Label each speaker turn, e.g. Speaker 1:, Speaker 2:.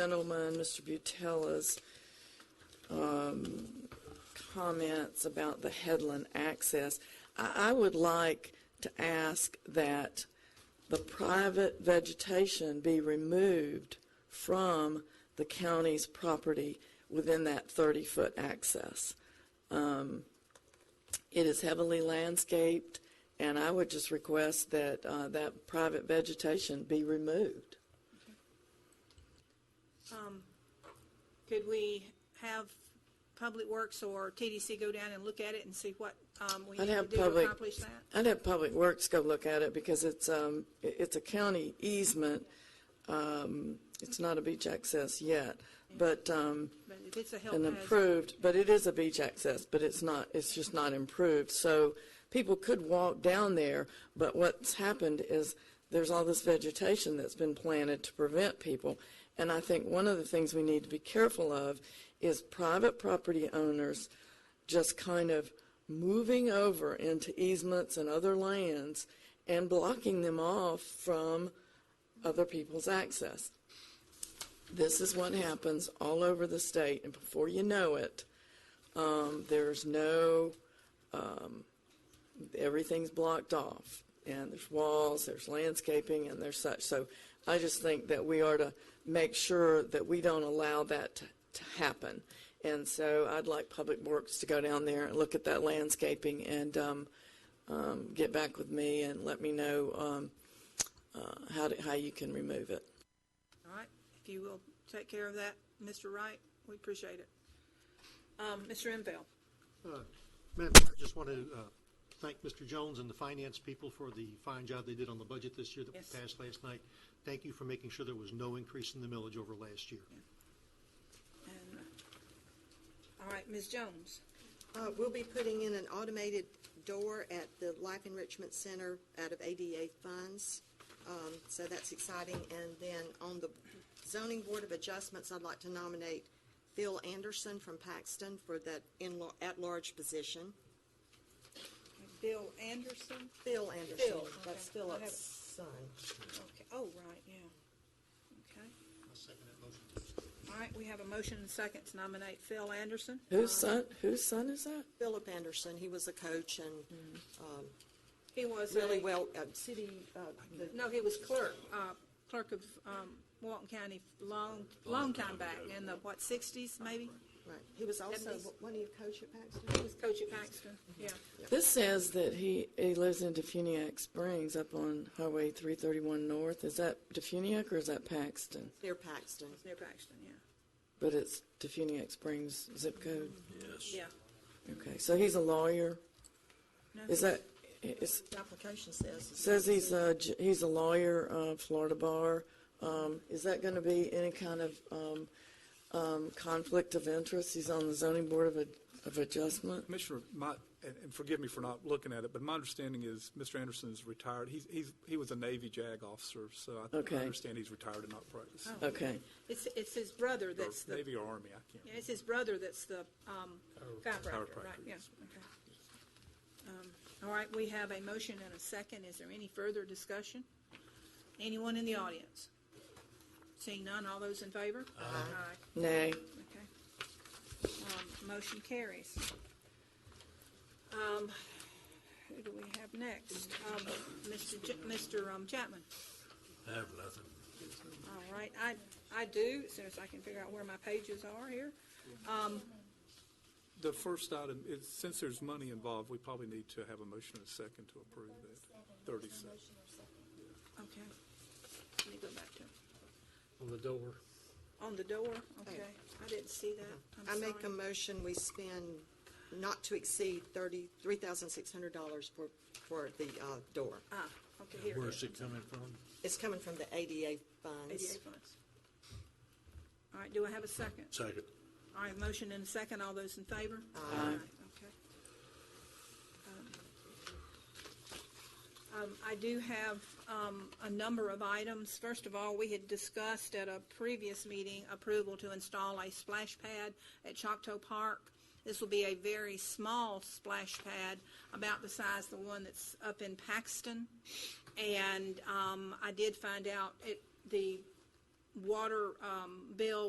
Speaker 1: gentleman, Mr. Butella's, um, comments about the headland access. I, I would like to ask that the private vegetation be removed from the county's property within that 30-foot access. Um, It is heavily landscaped, and I would just request that uh, that private vegetation be removed.
Speaker 2: Could we have Public Works or TDC go down and look at it and see what um, we
Speaker 1: I'd
Speaker 2: need to
Speaker 1: have
Speaker 2: do to
Speaker 1: public-
Speaker 2: accomplish that?
Speaker 1: I'd have Public Works go look at it because it's, um, i- it's a county easement. Um, It's not a beach access yet, but, um,
Speaker 2: But if it's a health
Speaker 1: an
Speaker 2: hazard,
Speaker 1: improved, but it is a beach access, but it's not, it's just not improved. So people could walk down there, but what's happened is there's all this vegetation that's been planted to prevent people. And I think one of the things we need to be careful of is private property owners just kind of moving over into easements and other lands and blocking them off from other people's access. This is what happens all over the state, and before you know it, um, there's no, um, everything's blocked off, and there's walls, there's landscaping, and there's such. So I just think that we are to make sure that we don't allow that to, to happen. And so I'd like Public Works to go down there and look at that landscaping and um, um, get back with me and let me know um, uh, how, to, how you can remove it.
Speaker 2: all right, if you will take care of that, Mr. Wright, we appreciate it. Um, Mr. Enfield,
Speaker 3: Madam Chair, I just want to uh, thank Mr. Jones and the finance people for the fine job they did on the budget this year that
Speaker 2: Yes.
Speaker 3: we passed last night. Thank you for making sure there was no increase in the millage over last year.
Speaker 2: and, uh, all right, Ms. Jones,
Speaker 4: Uh, We'll be putting in an automated door at the Life Enrichment Center out of ADA funds, Um, so that's exciting. And then on the Zoning Board of Adjustments, I'd like to nominate Phil Anderson from Paxton for that in at-large position.
Speaker 2: Bill Anderson,
Speaker 4: Phil Anderson,
Speaker 2: Phil,
Speaker 4: that's
Speaker 2: okay. I have-
Speaker 4: Philip's son.
Speaker 2: okay, oh, right, yeah, okay.
Speaker 3: I'll second that motion.
Speaker 2: All right, we have a motion and second to nominate Phil Anderson.
Speaker 1: Whose son, whose son is that?
Speaker 4: Philip Anderson, he was a coach
Speaker 2: Mm-hmm.
Speaker 4: and um,
Speaker 2: He was a-
Speaker 4: really well, uh, city, uh, the
Speaker 2: No, he was clerk, uh, clerk of, um, Walton County long, long time back, in the, what, sixties maybe?
Speaker 4: right. he was also,
Speaker 2: Deputies.
Speaker 4: wasn't he a coach at Paxton?
Speaker 2: He was coach at Paxton, yeah.
Speaker 1: This says that he, he lives in Defuniak Springs up on Highway 331 North. Is that Defuniak or is that Paxton?
Speaker 4: Near Paxton.
Speaker 2: It's near Paxton, yeah.
Speaker 1: But it's Defuniak Springs zip code.
Speaker 2: Yeah.
Speaker 1: Okay, so he's a lawyer.
Speaker 2: No,
Speaker 1: Is that, is,
Speaker 4: The application says.
Speaker 1: says he's a, j- he's a lawyer, uh, Florida bar. Um, is that going to be any kind of, um, um, conflict of interest? He's on the zoning board of, ad- of adjustment?
Speaker 5: Commissioner, my, and and forgive me for not looking at it, but my understanding is Mr. Anderson is retired. He's, he's, he was a Navy JAG officer, so I
Speaker 1: Okay.
Speaker 5: I understand he's retired and not practicing. Or
Speaker 1: Okay,
Speaker 2: It's, it's his brother Oh, that's the,
Speaker 5: Navy or Army, I can't.
Speaker 2: yeah, it's his brother that's the, um, chiropractor,
Speaker 5: Chiropractor,
Speaker 2: right, yeah,
Speaker 5: yes.
Speaker 2: okay. Um, all right, we have a motion and a second. Is there any further discussion? Anyone in the audience? Seeing none, all those in favor? Aye.
Speaker 1: nay.
Speaker 2: Okay. Um, Motion carries. Um, Who do we have next? Um, Mr. Ch- Mr. um, Chapman?
Speaker 6: I have nothing.
Speaker 2: All right, I, I do, as soon as I can figure out where my pages are here.
Speaker 5: The first item is, since there's money involved, we probably need to have a motion and a second to approve that. Thirty seconds.
Speaker 2: Okay. Let me go back to,
Speaker 6: On the door.
Speaker 2: on the door, okay. I didn't see that,
Speaker 4: Mm-hmm. I
Speaker 2: I'm
Speaker 4: make a
Speaker 2: sorry.
Speaker 4: motion, we spend not to exceed thirty, three thousand six hundred dollars for, for the, uh, door.
Speaker 2: Ah, okay, here it
Speaker 6: Where's
Speaker 2: is.
Speaker 6: it coming from?
Speaker 4: It's coming from the ADA
Speaker 2: ADA
Speaker 4: funds.
Speaker 2: funds. All right, do I have a second?
Speaker 6: Second.
Speaker 2: All right, motion and a second. All those in favor? Aye. Okay. Um, I do have um, a number of items. First of all, we had discussed at a previous meeting approval to install a splash pad at Choctaw Park. This will be a very small splash pad, about the size of the one that's up in Paxton. And um, I did find out, it, the water um, bill